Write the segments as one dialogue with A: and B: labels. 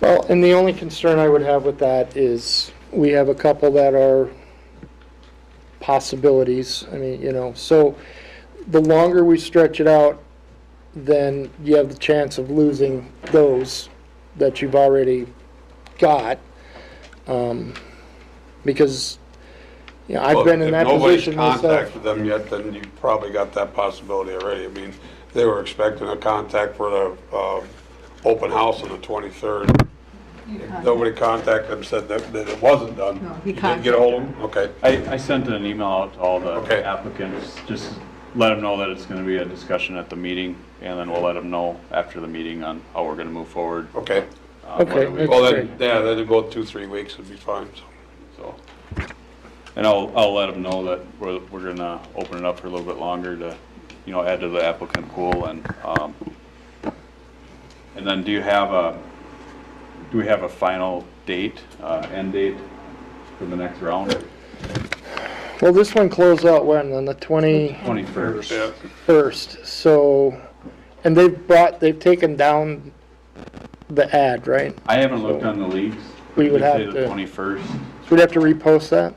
A: Well, and the only concern I would have with that is, we have a couple that are possibilities, I mean, you know, so the longer we stretch it out, then you have the chance of losing those that you've already got. Um, Because, you know, I've
B: Well,
A: been in that position
B: If
A: myself.
B: nobody's contacted them yet, then you probably got that possibility already. I mean, they were expecting a contact for the uh, open house on the 23rd.
C: You can't.
B: Nobody contacted them, said that that it wasn't done.
C: No, he
B: You didn't get ahold of them? Okay.
D: I, I sent an email out to all
B: Okay.
D: the applicants, just let them know that it's gonna be a discussion at the meeting, and then we'll let them know after the meeting on how we're gonna move forward.
B: Okay.
D: on whether
A: Okay,
D: we-
A: that's-
B: Well, then, yeah, then it'd go two, three weeks, it'd be fine, so.
D: so. And I'll, I'll let them know that we're, we're gonna open it up for a little bit longer to, you know, add to the applicant pool and, um, and then do you have a, do we have a final date, uh, end date for the next round?
A: Well, this one closed out when, on the 20?
D: Twenty-first.
B: Yeah.
A: first, so, and they've brought, they've taken down the ad, right?
D: I haven't looked on the leagues.
A: We would
D: They say
A: have
D: The
A: to-
D: twenty-first.
A: So we'd have to repost that?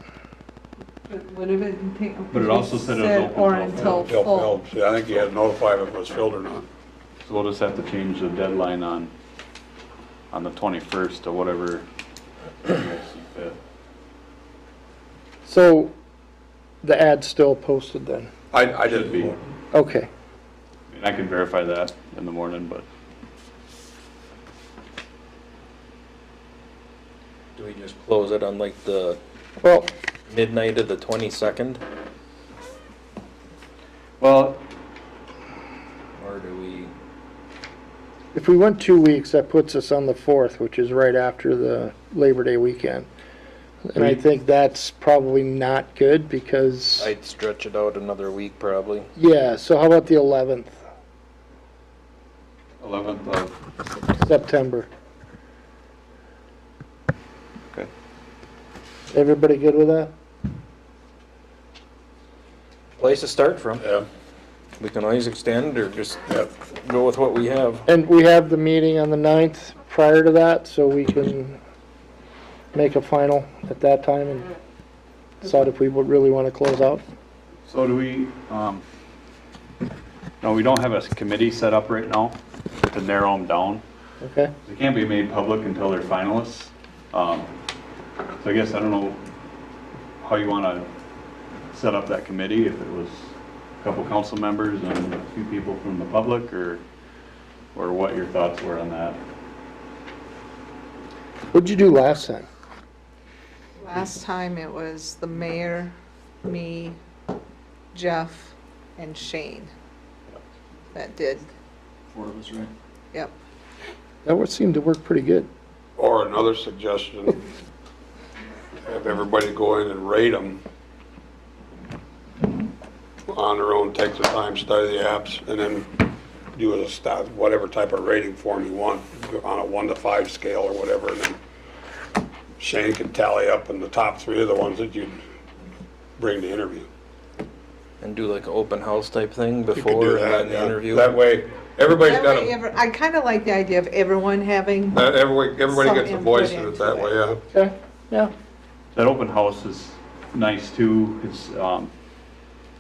C: But what if it didn't take-
D: But it also said it was open
C: Or
D: till
C: until
B: Phil
C: full.
B: Phillips, yeah, I think you had to notify if it was filled or not.
D: So we'll just have to change the deadline on, on the twenty-first to whatever. you guys see fit.
A: So the ad's still posted then?
B: I, I didn't.
D: Should be.
A: Okay,
D: I mean, I can verify that in the morning, but
E: Do we just close it on like the
A: well,
E: midnight of the twenty-second,
D: Well,
E: or do we?
A: if we went two weeks, that puts us on the 4th, which is right after the Labor Day weekend. And I
D: We-
A: think that's probably not good because,
E: I'd stretch it out another week probably.
A: yeah, so how about the 11th,
D: eleventh uh, of,
A: September?
D: Okay.
A: Everybody good with that?
E: Place to start from.
B: Yeah,
E: We can always extend or just
B: yeah.
E: go with what we have.
A: And we have the meeting on the 9th prior to that, so we can make a final at that time and decide if we would really want to close out.
D: so do we, um, no, we don't have a committee set up right now to narrow them down.
A: Okay?
D: They can't be made public until they're finalists. Um, So I guess I don't know how you want to set up that committee, if it was a couple council members and a few people from the public, or, or what your thoughts were on that.
A: What'd you do last time?
C: Last time it was the mayor, me, Jeff, and Shane that did.
D: Four of us, right?
C: Yep.
A: That would seem to work pretty good.
B: Or another suggestion, have everybody go in and rate them on their own, take the time, study the apps, and then do a stop, whatever type of rating form you want, on a one to five scale or whatever, and then Shane can tally up in the top three of the ones that you bring to interview.
E: And do like an open house type thing
B: You could do
E: before and
B: that,
E: then
B: yeah.
E: interview.
B: That way, everybody's
C: That
B: got
C: way
B: a,
C: ever- I kind of like the idea of everyone having,
B: that- everybody, everybody
C: Some
B: gets a
C: input
B: voice in it
C: into
B: that
C: it.
B: way, yeah.
A: Okay, yeah.
D: That open house is nice too, it's, um,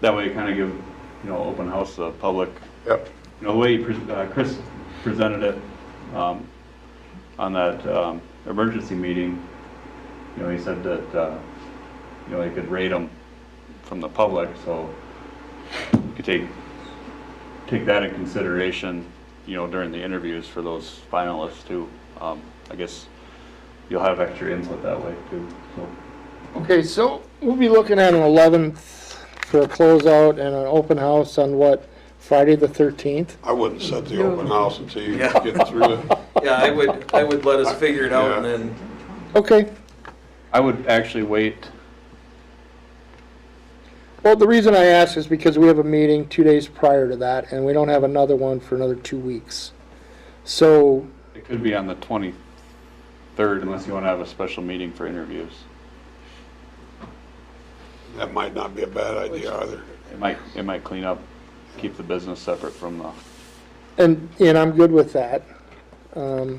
D: that way you kind of give, you know, open house the public
B: Yep,
D: you know, the way pres- uh, Chris presented it um, on that um, emergency meeting, you know, he said that, uh, you know, he could rate them from the public, so you could take, take that in consideration, you know, during the interviews for those finalists too. Um, I guess you'll have extra input that way too, so.
A: Okay, so we'll be looking at an 11th for a closeout and an open house on what, Friday the 13th?
B: I wouldn't set the
C: No.
B: open house until you get through it.
E: Yeah, I would, I would let us figure it out and then.
A: Okay.
D: I would actually wait
A: Well, the reason I ask is because we have a meeting two days prior to that, and we don't have another one for another two weeks. So
D: It could be on the 23rd unless you want to have a special meeting for interviews.
B: That might not be a bad idea either.
D: It might, it might clean up, keep the business separate from the
A: And, and I'm good with that. Um,